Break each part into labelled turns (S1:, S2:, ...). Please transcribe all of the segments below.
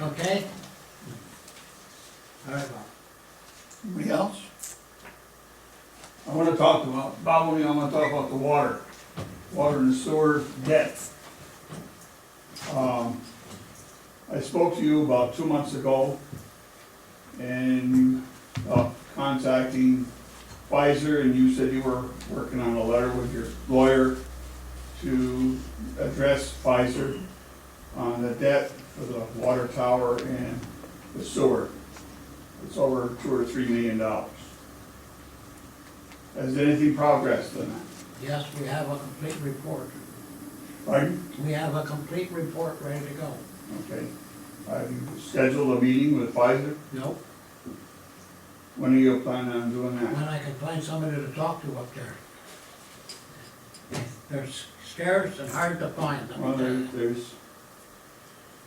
S1: Okay? All right, Bob.
S2: Anybody else? I wanna talk about, Bob, I wanna talk about the water, water and sewer debt. Um, I spoke to you about two months ago, and, uh, contacting Pfizer, and you said you were working on a letter with your lawyer to address Pfizer on the debt for the water tower and the sewer. It's over two or three million dollars. Has anything progressed on that?
S1: Yes, we have a complete report.
S2: Pardon?
S1: We have a complete report ready to go.
S2: Okay. Have you scheduled a meeting with Pfizer?
S1: Nope.
S2: When are you planning on doing
S1: When
S2: that?
S1: I can find somebody to talk to up there. They're scarce and hard to find. let me
S2: Well,
S1: tell
S2: there-
S1: you.
S2: there's,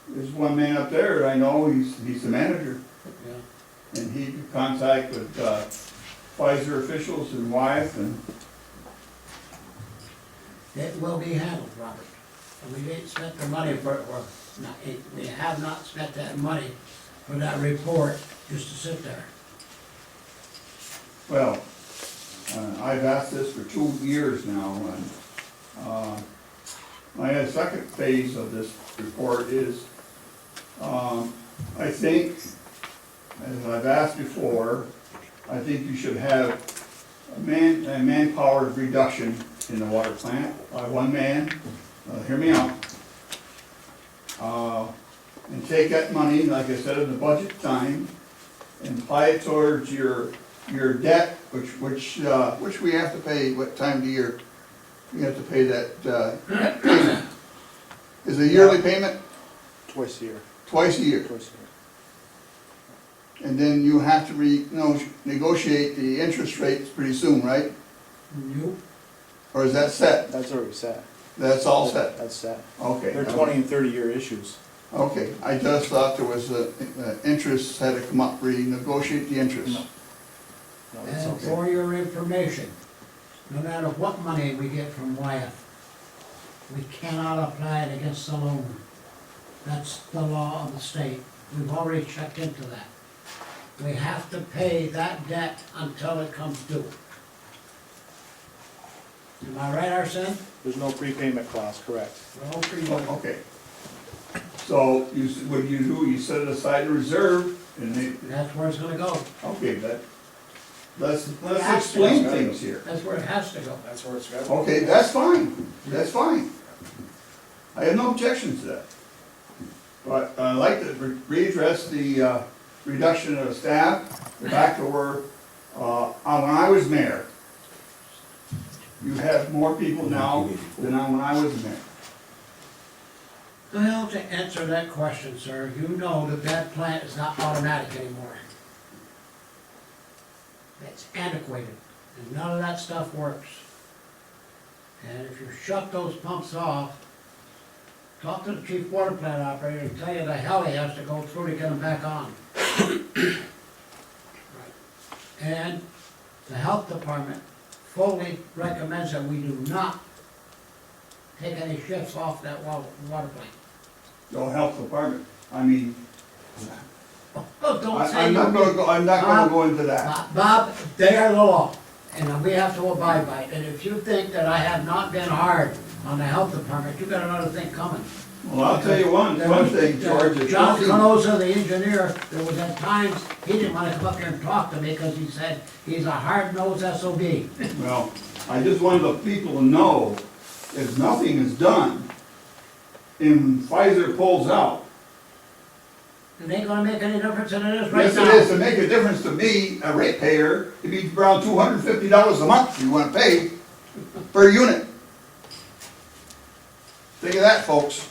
S2: there's one man up there, I know, he's, he's the manager,
S1: Yeah.
S2: and he could contact with uh, Pfizer officials and wife, and,
S1: It will be handled, Robert. And we didn't spend the money for it, or not, it- we have not spent that money for that report just to sit there.
S2: well, uh, I've asked this for two years now, and, uh, my second phase of this report is, um, I think, as I've asked before, I think you should have a man, a manpower reduction in the water plant by one man, Uh, hear me out. Uh, and take that money, like I said, in the budget time, and apply it towards your, your debt, which, which, uh, which we have to pay, what time of the year? We have to pay that, uh, payment. Is it a yearly payment?
S3: Twice a year,
S2: Twice a year.
S3: twice a
S2: And then you have to re, no, negotiate the interest rates pretty soon, right?
S1: You,
S2: Or is that set?
S3: year. That's already set.
S2: That's all set?
S3: That's set.
S2: Okay.
S3: They're twenty and thirty year issues.
S2: Okay, I just thought there was a, a interest had to come up, renegotiate the interest.
S3: No. No, that's all
S1: and
S3: set.
S1: for your information, no matter what money we get from Wyeth, we cannot apply it against the loan. That's the law of the state. We've already checked into that. We have to pay that debt until it comes due. Am I right, Arson?
S3: There's no prepayment clause, correct?
S1: We're all pretty
S2: Oh, Okay. So you, s- what you do, you set aside a reserve and they,
S1: That's where it's gonna go.
S2: okay, but let's, let's
S1: That's-
S2: explain things here.
S1: That's where it has to go.
S3: That's where it's got.
S2: Okay, that's fine, that's fine. I have no objections to that. But I'd like to re- readdress the uh, reduction of staff, back to where, uh, uh, when I was mayor. You have more people now than I- when I was mayor.
S1: Well, to answer that question, sir, you know that that plant is not automatic anymore. It's antiquated, and none of that stuff works. And if you shut those pumps off, talk to the chief water plant operator and tell you the hell he has to go through to get them back on. And the health department fully recommends that we do not take any shifts off that wa- water plant.
S2: The health department, I mean,
S1: Oh, don't
S2: I-
S1: say
S2: I'm
S1: you
S2: not gonna
S1: did.
S2: go, I'm not gonna go into that.
S1: Bob- Bob, they are the law, and we have to abide by it. And if you think that I have not been hard on the health department, you got another thing coming.
S2: Well, I'll tell you one, one thing, George, is
S1: John
S2: nothing-
S1: Canosa, the engineer, there was at times, he didn't wanna come up here and talk to me, cause he said, he's a hard-nosed SOB.
S2: Well, I just wanted the people to know, if nothing is done, and Pfizer pulls out,
S1: It ain't gonna make any difference than it is right
S2: yes, it is
S1: now.
S2: to make a difference to me, a ratepayer, it'd be around two hundred and fifty dollars a month you wanna pay per unit. Think of that, folks,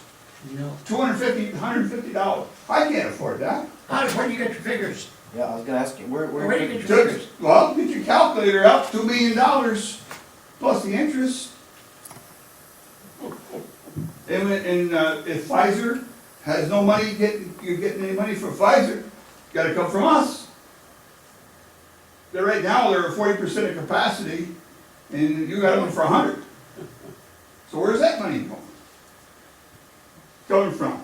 S1: You know,
S2: two hundred and fifty, hundred and fifty dollars, I can't afford that.
S1: how, where do you get your figures?
S3: Yeah, I was gonna ask you, where,
S1: Where do you get your
S2: Took-
S1: figures?
S2: Well, get your calculator out, two million dollars, plus the interest. And, when- and uh, if Pfizer has no money, getting, you're getting any money from Pfizer, gotta come from us. They're right now, they're at forty percent of capacity, and you got them for a hundred. So where's that money going? Coming from?